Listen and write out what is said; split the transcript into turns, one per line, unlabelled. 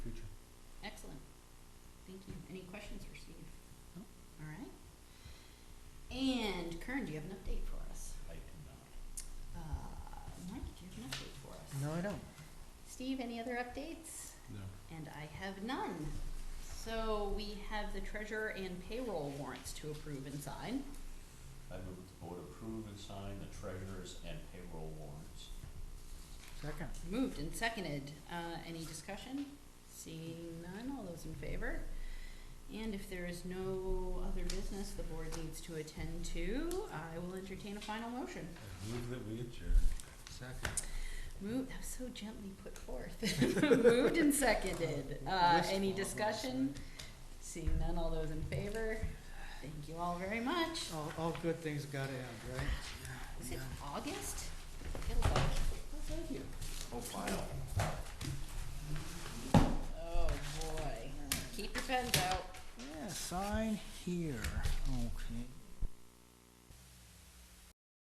have an update for us?
I do not.
Uh, Mike, do you have an update for us?
No, I don't.
Steve, any other updates?
No.
And I have none. So we have the treasurer and payroll warrants to approve and sign.
I move that the board approve and sign the treasurer's and payroll warrants.
Second.
Moved and seconded. Uh, any discussion? Seeing none, all those in favor? And if there is no other business the board needs to attend to, I will entertain a final motion.
I Move that we adjourn.
Second.
Moved, that was so gently put forth. Moved and seconded. Uh, any discussion? Seeing none, all those in favor? Thank you all very much.
All, all good things gotta end, right?
Is it August? Feels like-
Thank you.
Oh, boy. Keep your pens out.
Yeah, sign here. Okay.